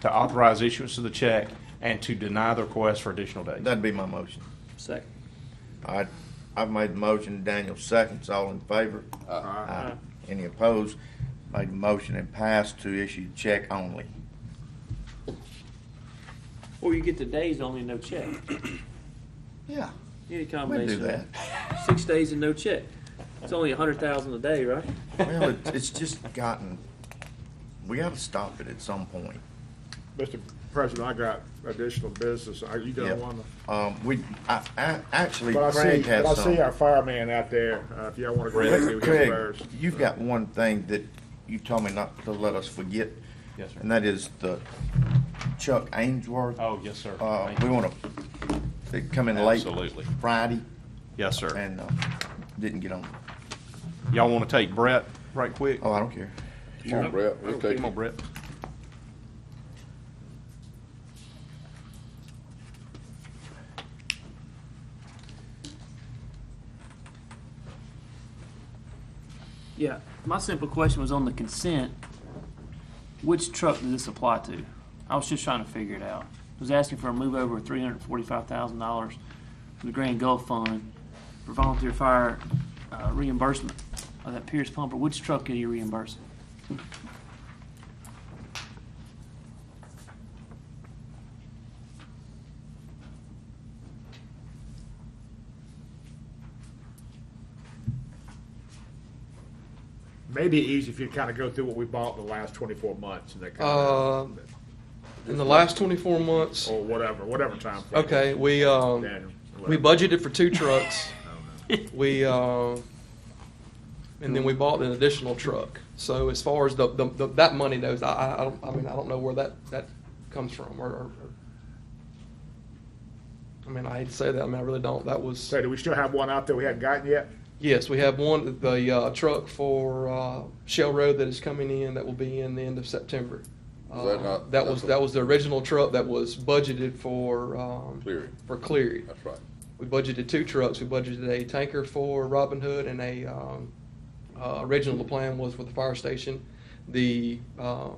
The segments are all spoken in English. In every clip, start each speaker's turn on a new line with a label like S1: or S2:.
S1: to authorize issuance of the check and to deny the request for additional days.
S2: That'd be my motion.
S3: Second.
S2: All right, I've made the motion, Daniel seconds, all in favor? Aye. Any opposed? Made the motion and passed to issue check only.
S3: Or you get the days only, no check.
S2: Yeah,
S3: Any
S2: we do
S3: combination.
S2: that.
S3: Six days and no check. It's only a hundred thousand a day, right?
S2: Well, it- it's just gotten, we gotta stop it at some point.
S4: Mr. President, I got additional business. Are you
S2: Yeah.
S4: gonna wanna?
S2: Um, we, I, I, actually
S4: But I see,
S2: Craig
S4: but
S2: has
S4: I see our
S2: some.
S4: fireman out there, uh, if y'all wanna go back to him
S2: Craig,
S4: first.
S2: you've got one thing that you told me not to let us forget,
S1: Yes, sir.
S2: and that is the Chuck Ainsworth.
S1: Oh, yes, sir.
S2: Uh,
S1: Thank
S2: we
S1: you.
S2: wanna, they come in late
S1: Absolutely.
S2: Friday
S1: Yes, sir.
S2: and, uh, didn't get on.
S1: Y'all want to take Brett right quick?
S2: Oh, I don't care.
S5: Come on, Brett, we'll take
S1: Come on,
S5: it.
S1: Brett.
S3: Yeah. My simple question was on the consent. Which truck does this apply to? I was just trying to figure it out. I was asking for a move over of three hundred forty-five thousand dollars from the Grand Gulf Fund for volunteer fire uh, reimbursement of that Pierce pumper. Which truck are you reimbursing?
S4: Maybe easy if you kinda go through what we bought in the last twenty-four months and that
S6: Uh,
S4: kinda,
S6: in the last 24 months,
S4: or whatever, whatever time. frame.
S6: okay, we um,
S4: Daniel,
S6: we
S4: whatever.
S6: budgeted for two trucks. We uh, and then we bought an additional truck. So as far as the, the, the that money goes, I, I I don't I mean I don't know where that that comes from or. or, or I mean, I hate to say that. I mean, I really don't. That was
S4: So do we still have one out there we hadn't gotten yet?
S6: yes. We have one the uh, truck for uh, Shell Road that is coming in. That will be in the end of September.
S5: Was that not-
S6: Uh, that was that was the original truck that was budgeted for um,
S5: Cleary,
S6: for Cleary.
S5: that's right.
S6: We budgeted two trucks. We budgeted a tanker for Robin Hood and a, um, uh, original plan was with the fire station, the, um,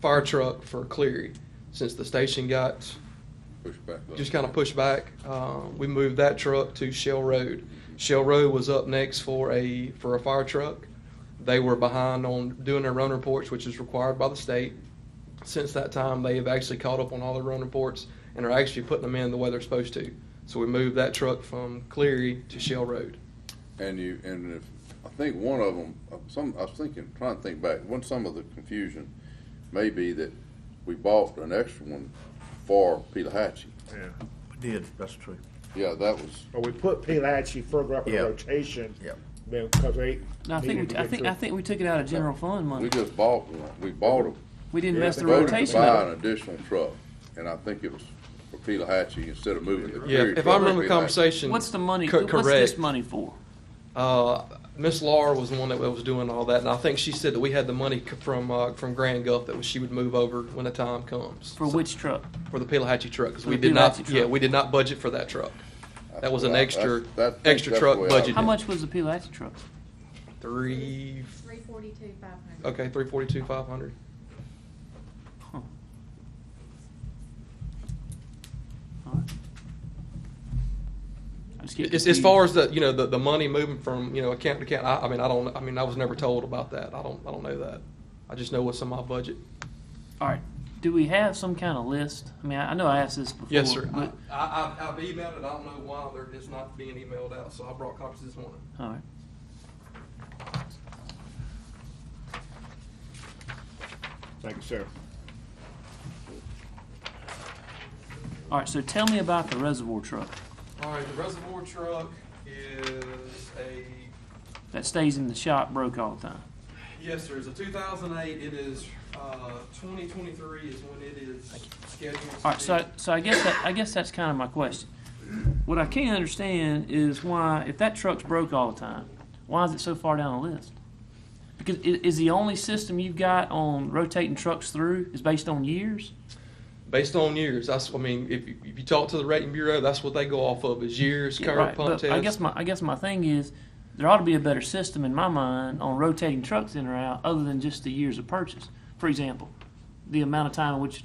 S6: fire truck for Cleary. Since the station got
S5: Push back. up.
S6: just kind of pushed back, uh, we moved that truck to Shell Road. Shell Road was up next for a, for a fire truck. They were behind on doing their run reports, which is required by the state. Since that time, they have actually caught up on all their run reports and are actually putting them in the way they're supposed to. So we moved that truck from Cleary to Shell Road.
S5: And you, and if, I think one of them, some, I was thinking, trying to think back, one, some of the confusion may be that we bought an extra one for Pelahatchie.
S4: Yeah.
S2: We did, that's true.
S5: Yeah, that was,
S4: But we put Pelahatchie further up in
S2: Yeah.
S4: the rotation.
S2: Yep.
S4: then- cause they.
S3: No, I
S4: needed
S3: think,
S4: to
S3: we, I
S4: get
S3: think,
S4: through.
S3: I think we took it out of general fund
S5: we
S3: money.
S5: just bought one, we bought a,
S3: We didn't
S4: Yeah,
S3: mess the
S4: they voted
S5: voted to
S3: rotation up.
S5: buy an additional truck, and I think it was for Pelahatchie instead of moving the
S6: Yeah,
S5: Cleary truck.
S6: if I remember the
S5: Pelahatchie.
S6: conversation.
S3: What's the money,
S6: co-
S3: what's this
S6: correct.
S3: money for?
S6: Uh, Miss Laura was the one that was doing all that, and I think she said that we had the money c- from uh, from Grand Gulf that she would move over when the time comes
S3: For which truck?
S6: for the Pelahatchie truck because
S3: For
S6: we
S3: the
S6: did not
S3: Pelahatchie
S6: yeah
S3: truck.
S6: we did not budget for that truck. That was an
S5: Well,
S6: extra
S5: that's- that- I think
S6: extra
S5: that's
S6: truck
S5: the way I-
S6: budget.
S3: How much was the Pilates truck?
S6: Three
S7: Three forty-two, five hundred.
S6: okay three forty two five hundred.
S3: Alright. I just get
S6: As, as far
S3: confused.
S6: as the you know the, the money moving from you know account to account, I, I mean I don't I mean I was never told about that. I don't I don't know that. I just know what's in my budget.
S3: All right, do we have some kind of list? I mean, I I know I asked this before.
S6: Yes, sir. I,
S3: but-
S6: I, I've emailed it. I don't know why they're just not being emailed out, so I brought copies this morning.
S3: All right.
S4: Thank you, sir.
S3: All right, so tell me about the reservoir truck
S6: All right, the reservoir truck is a,
S3: that stays in the shop broke all the time.
S6: yes, sir, it's a two thousand eight. It is, uh, twenty twenty-three is when it is scheduled. to
S3: All right, so,
S6: be-
S3: so I guess that, I guess that's kind of my question. What I can't understand is why, if that truck's broke all the time, why is it so far down the list? Because i- is the only system you've got on rotating trucks through is based on years?
S6: Based on years, that's, I mean, if, you- if you talk to the rating bureau, that's what they go off of, is years,
S3: Yeah,
S6: current pump
S3: But I guess
S6: test.
S3: my I guess my thing is there ought to be a better system in my mind on rotating trucks in or out other than just the years of purchase. For example, the amount of time in which